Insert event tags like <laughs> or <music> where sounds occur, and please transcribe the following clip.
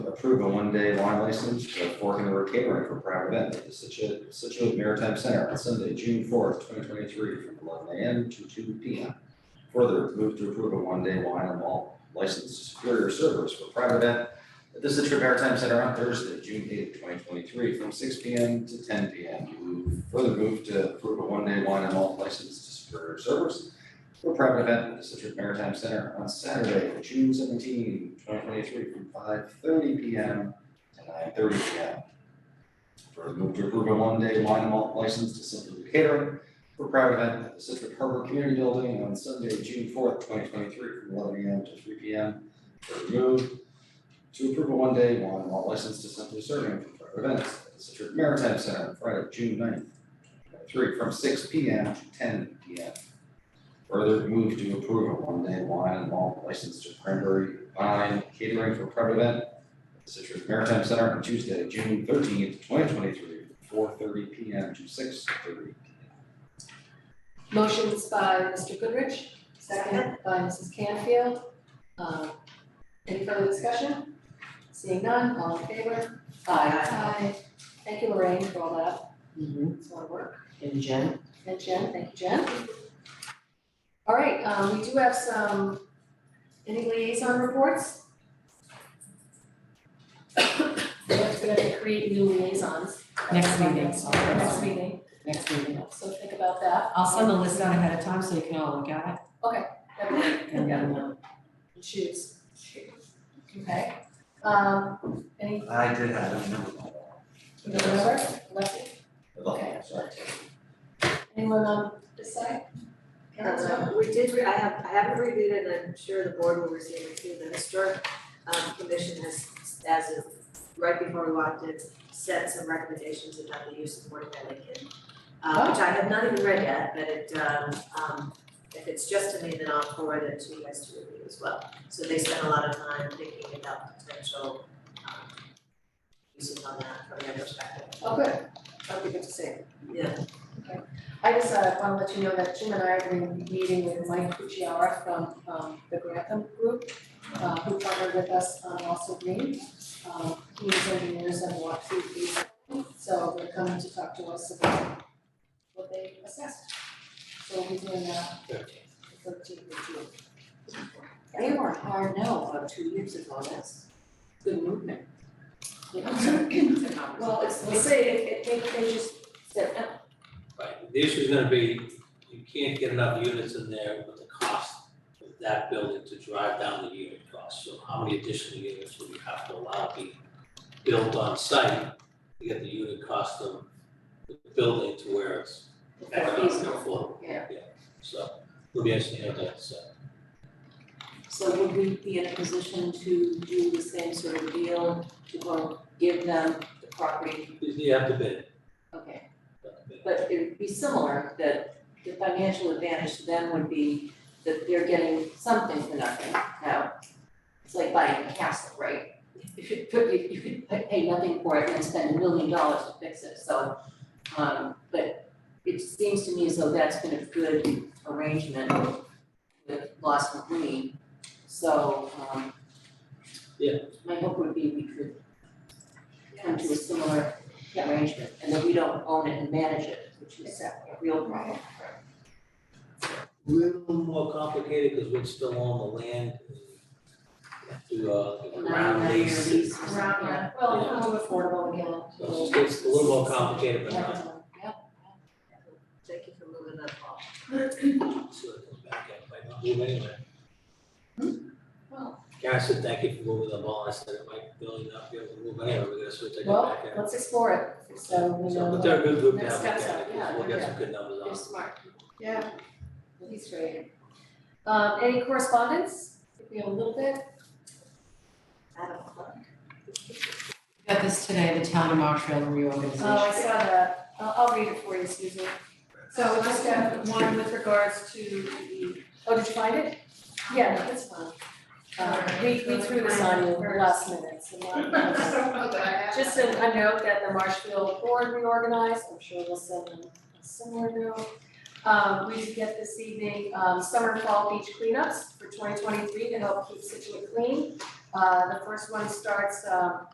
approve a one-day wine license for Fork in the Road Catering for private event at the Situate, Situate Maritime Center on Sunday, June fourth, twenty twenty-three, from eleven AM to two P M. Further, move to approve a one-day wine and malt license to Superior Servers for private event at the Situate Maritime Center on Thursday, June eighth, twenty twenty-three, from six P M to ten P M. Move- Further, move to approve a one-day wine and malt license to Superior Servers for a private event at the Citrus Maritime Center on Saturday, June 17, 2023, from five thirty P M to nine thirty P M. Further move to approve a one-day wine and malt license to Simply Catering for a private event at the Citrus Harbor Community Building on Sunday, June fourth, twenty twenty-three, from eleven A M to three P M. Further move to approve a one-day wine and malt license to Simply Serving for private events at the Citrus Maritime Center on Friday, June 9th, three, from six P M to ten P M. Further move to approve a one-day wine and malt license to Cranberry Vine Catering for private event at the Citrus Maritime Center on Tuesday, June thirteenth, twenty twenty-three, from four thirty P M to six thirty. Motion's by Mr. Goodrich, second by Mrs. Canfield. Um, Any further discussion? Seeing none, all in favor? Aye. Thank you, Lorraine, for all that. Mhm. It's a lot of work. And Jen? And Jen, thank you, Jen. All right, um, we do have some, any liaison reports? We're going to create new liaisons. Next meeting. Next meeting, Next meeting. so think about that. I'll send the list out ahead of time so you can all look at it and Yeah. then uh, Choose. Okay, um, any, I did have a number. you know, whatever, Lexi, Okay, sorry. anyone on this side? Uh, we did, re- I have, I haven't reviewed it, and I'm sure the board will receive it too, the historic um commission has, as of right before we walked in, set some recommendations about the use of Fort Connecticut. Uh, Oh. which I have not even read yet, but it um um if it's just to me, then I'll forward it to you guys to review as well. So they spent a lot of time thinking about potential um uses on that from their perspective. Oh, good, that'll be good to see. Yeah. I just uh wanna let you know that Jim and I are doing a meeting with Mike Cucciara from um the Grantham Group, uh who partnered with us on Also Green. Um he is engineers and walked through these, so they're coming to talk to us about what they assessed. So we're doing that the thirteenth of June. They were hard now about two years ago, that's good movement. Well, it's, we'll see, it it they they just said, no, Right, the issue's gonna be, you can't get enough units in there with the cost of that building to drive down the unit cost. So how many additional units would you have to allow be built on site to get the unit cost of the building to where it's economically affordable? Yeah. So, it'll be interesting to have that, so. So would we be in a position to do the same sort of deal, to go give them the property? You have to bid, Okay, you have to bid. but it would be similar, that the financial advantage to them would be that they're getting something for nothing now. It's like buying a castle, right? If you put, you, you could pay- pay nothing for it and spend a million dollars to fix it, so, um, but it seems to me as though that's been a good arrangement with Lawson Green, so, um. Yeah. My hope would be we could come to a similar arrangement, and that we don't own it and manage it, which is a real problem. little more complicated because we're still on the land. and we have To, uh, the ground Nine-year lease. lease or something. yeah, well, it's more affordable again. So it's just- it's a little more complicated, but not, Thank you for moving that off. so it comes back up, might not move anywhere. Hmm? Well. Karen said, thank you for moving the ball, I said, it might really not be able to move anywhere, we're gonna switch it Well, back in. let's explore it, so we So, know. but they're a good group now, Next we steps are- yeah, we'll get they're some good numbers on. They're it. smart. Yeah. He's great. Um, any correspondence? We have a little bit. I don't know. Got this today, the town of Marshall Oh, I reorganization. saw that. I'll, I'll read it for you, Susan. So we just have one with regards to the, Oh, did you find it? Yeah, no, that's fine. Uh, we, we threw this on you last minute, so <laughs> not. Just a, a note that the Marshfield Board reorganized, I'm sure we'll send them a similar note. Um, we did get this evening, um, summer and fall beach cleanups for twenty twenty-three to help keep Situate clean. Uh, the first one starts, um,